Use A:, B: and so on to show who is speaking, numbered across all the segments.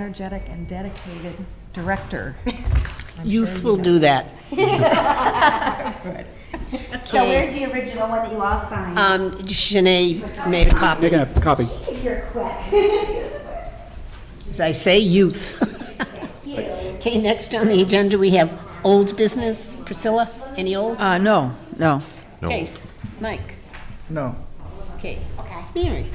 A: energetic and dedicated director. I'm
B: Youth
A: sure
B: will
A: you-
B: do that.
C: So where's the original one that you all signed?
B: Um, Shanae made a copy.
D: Making a copy.
C: You're quick.
B: As I say, youth. Okay, next on the agenda, we have old business. Priscilla, any old?
E: Uh, no, no.
B: Case, Mike,
F: No.
B: okay.
C: Okay.
B: Mary?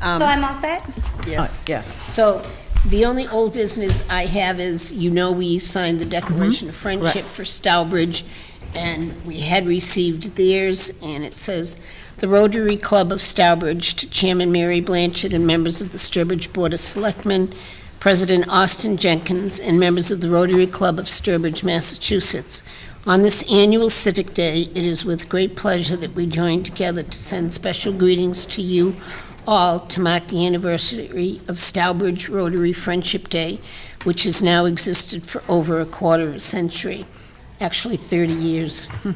C: So I'm all set?
B: Yes.
E: yeah.
B: So the only old business I have is, you know, we signed the Declaration of Friendship for Stowbridge, and we had received theirs, and it says, "The Rotary Club of Stowbridge to Chairman Mary Blanchard and members of the Sturbridge Board of Selectmen, President Austin Jenkins, and members of the Rotary Club of Sturbridge, Massachusetts. On this annual Civic Day, it is with great pleasure that we join together to send special greetings to you all to mark the anniversary of Stowbridge Rotary Friendship Day, which has now existed for over a quarter of a century, actually 30 years.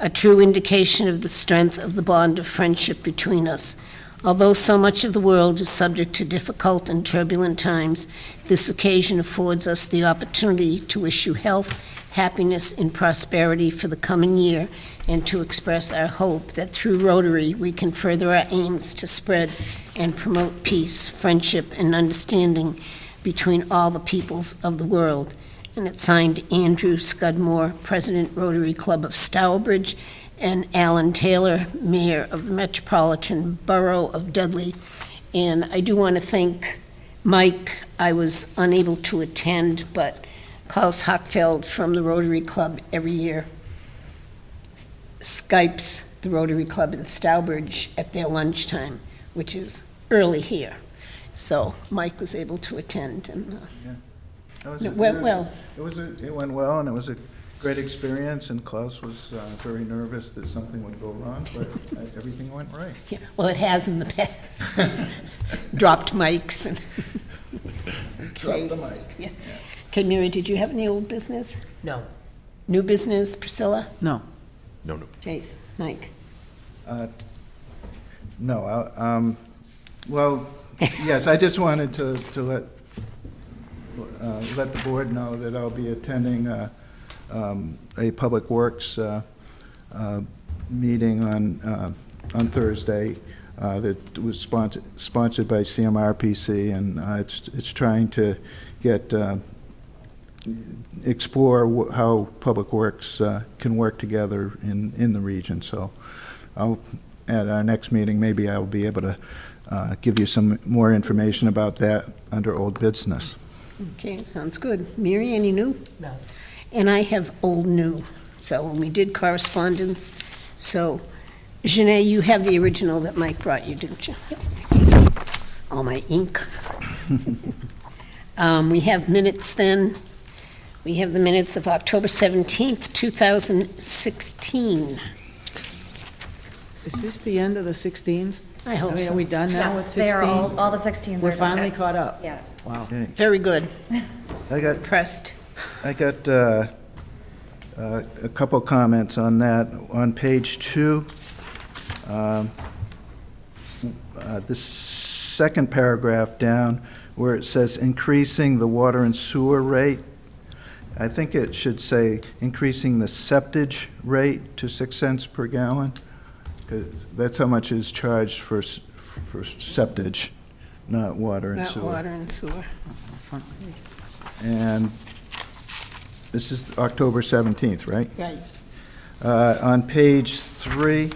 B: A true indication of the strength of the bond of friendship between us. Although so much of the world is subject to difficult and turbulent times, this occasion affords us the opportunity to wish you health, happiness, and prosperity for the coming year, and to express our hope that through Rotary, we can further our aims to spread and promote peace, friendship, and understanding between all the peoples of the world. And it's signed Andrew Scudmore, President Rotary Club of Stourbridge, and Alan Taylor, Mayor of the Metropolitan Borough of Dudley. And I do want to thank Mike. I was unable to attend, but Klaus Hockfeld from the Rotary Club every year Skypes the Rotary Club in Stowbridge at their lunchtime, which is early here. So Mike was able to attend and uh,
F: That was a-
B: it went well.
F: It was, a- it went well, and it was a great experience, and Klaus was uh, very nervous that something would go wrong, but uh, everything went right.
B: Yeah, Well, it has in the past. Dropped mics and. Dropped the mic. Yeah. Okay, Mary, did you have any old business?
E: No.
B: New business, Priscilla?
E: No.
G: No, no.
B: Jace, Mike?
F: Uh, No, I- um, well, yes, I just wanted to, to let, uh, let the board know that I'll be attending uh, um, a Public Works uh, uh, meeting on, uh, on Thursday uh, that was sponsored, sponsored by CMRPC, and uh, it's, it's trying to get, uh, explore wh- how Public Works uh, can work together in, in the region, so I'll, at our next meeting, maybe I'll be able to uh, give you some more information about that under old business.
B: Okay, sounds good. Mary, any new?
E: No.
B: And I have old new, so we did correspondence. So, Janay, you have the original that Mike brought you, didn't you? All my ink. Um, We have minutes then. We have the minutes of October 17th, 2016.
E: Is this the end of the 16s?
B: I
E: I
B: hope
E: mean, are
B: so.
E: we done now with
A: Yes, they are all,
E: 16s?
A: all the 16s are
E: We're
A: done.
E: finally caught up.
A: Yeah.
E: Wow.
B: Very good.
F: I got
B: Impressed.
F: I got uh, uh, a couple comments on that. On page two, um, uh, the second paragraph down, where it says increasing the water and sewer rate, I think it should say increasing the septage rate to six cents per gallon, because that's how much is charged for, s- for septage, not water and
B: Not
F: sewer.
B: water and sewer.
F: And this is October 17th, right?
B: Right.
F: Uh, On page three,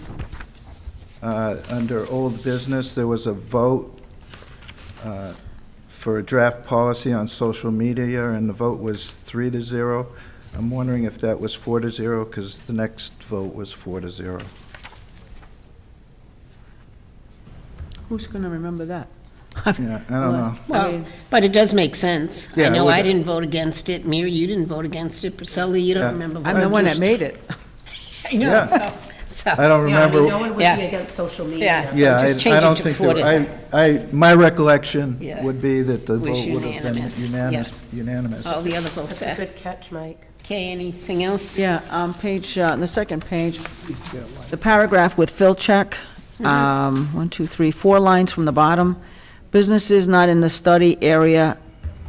F: uh, under old business, there was a vote uh, for a draft policy on social media, and the vote was three to zero. I'm wondering if that was four to zero, because the next vote was four to zero.
E: Who's going to remember that?
F: Yeah, I don't know.
E: I
B: Well,
E: mean-
B: but it does make sense. I
F: Yeah,
B: know
F: we-
B: I didn't vote against it, Mary, you didn't vote against it, Priscilla, you
F: Yeah.
B: don't remember.
E: I'm the one that
F: just-
E: made it.
B: I know,
F: Yeah.
B: so,
F: I
B: so,
F: don't
H: Yeah, I mean,
F: remember.
H: no one would be
B: Yeah.
H: against social
B: yeah,
H: media.
B: so
F: Yeah,
B: just
F: I- I
B: change
F: don't
B: it to
F: think,
B: four
F: there-
B: to,
F: I, I, my recollection
B: Yeah.
F: would be that the
B: Was
F: vote would have been
B: unanimous, yeah.
F: unanimous. Unanimous.
B: all the other votes.
H: That's a
B: out.
H: good catch, Mike.
B: Okay, anything else?
E: Yeah, um, page, uh, the second page, the paragraph with fill check,
A: Mm-hmm.
E: um, one, two, three, four lines from the bottom. Businesses not in the study area